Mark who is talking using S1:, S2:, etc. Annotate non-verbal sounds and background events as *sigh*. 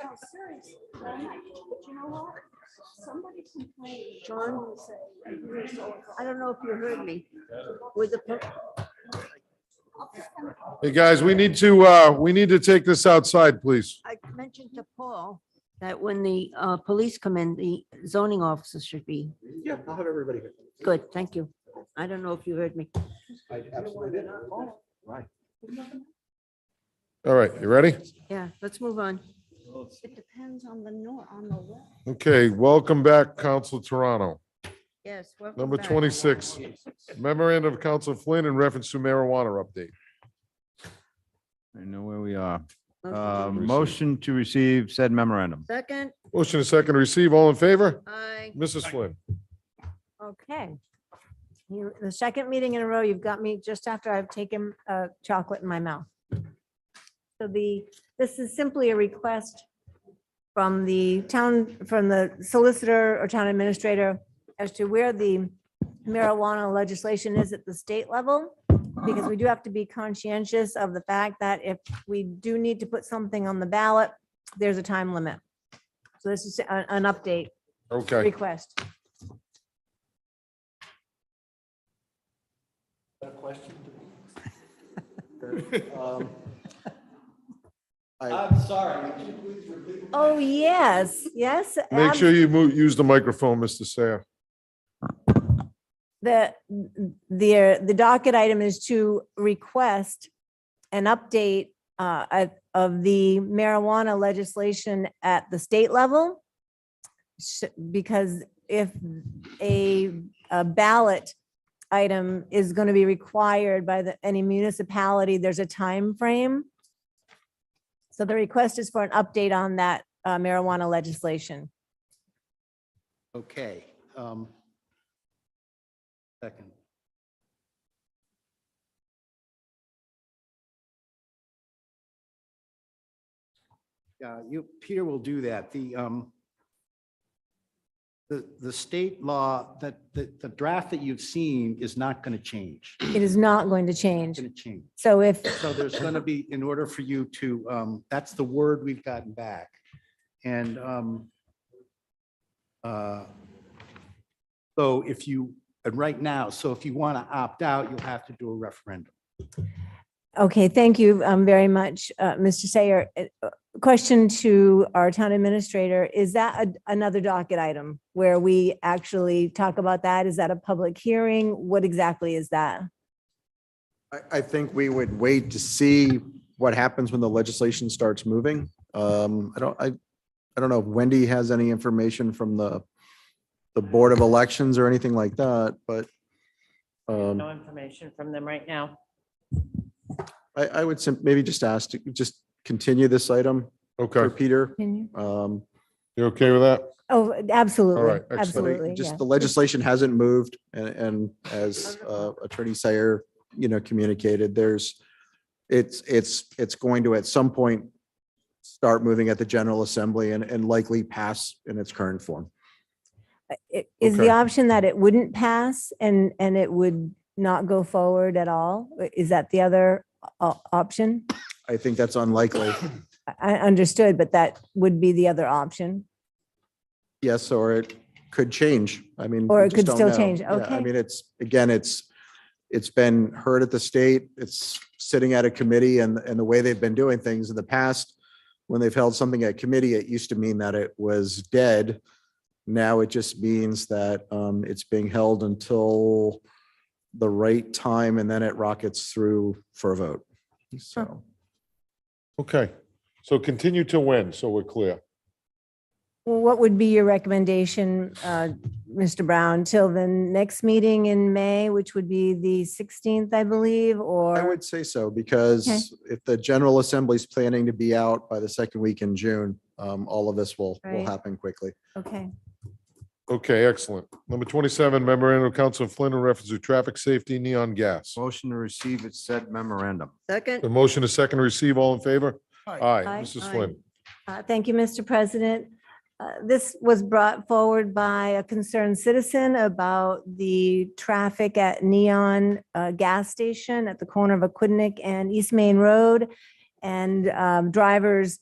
S1: crazy, right? But you know what? Somebody complained, John will say, "You're so
S2: I don't know if you heard me. With the, per-
S3: Hey, guys, we need to, uh, we need to take this outside, please.
S2: I mentioned to Paul that when the uh, police come in, the zoning officers should be
S4: Yeah, I'll have everybody here.
S2: good. Thank you. I don't know if you heard me.
S4: I absolutely did. Right.
S3: All right, you ready?
S2: Yeah, let's move on.
S1: It depends on the nor, on the what.
S3: Okay, welcome back, Council Toronto.
S2: Yes. welcome
S3: Number
S2: back.
S3: 26, memorandum of Council Flynn in reference to marijuana update.
S5: I know where we are.
S2: Motion to
S5: Uh,
S2: approve.
S5: Motion to receive said memorandum.
S2: Second,
S3: Motion and second to receive, all in favor?
S2: I,
S3: Mrs. Flynn?
S6: Okay. You, the second meeting in a row, you've got me just after I've taken uh, chocolate in my mouth. So the, this is simply a request from the town, from the solicitor or town administrator as to where the marijuana legislation is at the state level. Because we do have to be conscientious of the fact that if we do need to put something on the ballot, there's a time limit. So this is an, an update
S3: Okay,
S6: request.
S4: A question?
S3: *laughs*
S4: Um, I,
S7: I'm sorry, could you please repeat?
S6: Oh, yes, yes.
S3: make
S6: ab-
S3: sure you move, use the microphone, Mr. Sayre.
S6: The, the, the docket item is to request an update uh, at- of the marijuana legislation at the state level. Sh- Because if a a ballot item is going to be required by the, any municipality, there's a time frame. So the request is for an update on that uh, marijuana legislation.
S4: okay. um, Second. Yeah, you, Peter will do that. The, um, the, the state law, that, the, the draft that you've seen is not going to change. It's
S6: It is not going to change.
S4: going to change.
S6: So if
S4: So there's going to be, in order for you to, um, that's the word we've gotten back. And, um, uh, so if you, and right now, so if you want to opt out, you'll have to do a referendum.
S6: Okay, thank you um, very much, uh, Mr. Sayer. Uh, uh, Question to our town administrator, is that a- another docket item where we actually talk about that? Is that a public hearing? What exactly is that?
S8: I, I think we would wait to see what happens when the legislation starts moving. Um, I don't, I, I don't know if Wendy has any information from the, the Board of Elections or anything like that, but um,
S9: No information from them right now.
S8: I, I would sim- maybe just ask to just continue this item for
S3: Okay,
S8: Peter.
S6: Can you?
S8: Um,
S3: you okay with that?
S6: Oh,
S3: All right,
S6: absolutely,
S3: excellent.
S8: but it-
S6: absolutely, yeah.
S8: Just the legislation hasn't moved and, and as uh, Attorney Sayer, you know, communicated, there's, it's, it's, it's going to at some point start moving at the General Assembly and, and likely pass in its current form.
S6: It- Is the
S3: okay.
S6: option that it wouldn't pass and, and it would not go forward at all? Is that the other o- option?
S8: I think that's unlikely.
S6: I I understood, but that would be the other option.
S8: Yes, or it could change. I mean.
S6: Or
S8: we
S6: it
S8: just
S6: could
S8: don't
S6: still
S8: know.
S6: change.
S8: Yeah, I
S6: Okay.
S8: mean, it's, again, it's, it's been heard at the state. It's sitting at a committee and, and the way they've been doing things in the past, when they've held something at committee, it used to mean that it was dead. Now it just means that um, it's being held until the right time and then it rockets through for a vote. So.
S3: Okay, so continue to when, so we're clear.
S6: Well, what would be your recommendation, uh, Mr. Brown, till the next meeting in May, which would be the 16th, I believe,
S8: I
S6: or?
S8: would say so, because if the General Assembly's planning to be out by the second week in June, um, all of this will, will
S6: Right.
S8: happen quickly.
S6: Okay,
S3: Okay, excellent. Number 27, memorandum of Council Flynn in reference to traffic safety neon gas.
S5: Motion to receive it said memorandum.
S3: The
S2: Second,
S3: motion is second to receive, all in favor? Aye.
S6: Aye.
S3: Mrs. Flynn.
S6: Uh, thank you, Mr. President. Uh, This was brought forward by a concerned citizen about the traffic at Neon uh, Gas Station at the corner of Aquidneck and East Main Road. And um, drivers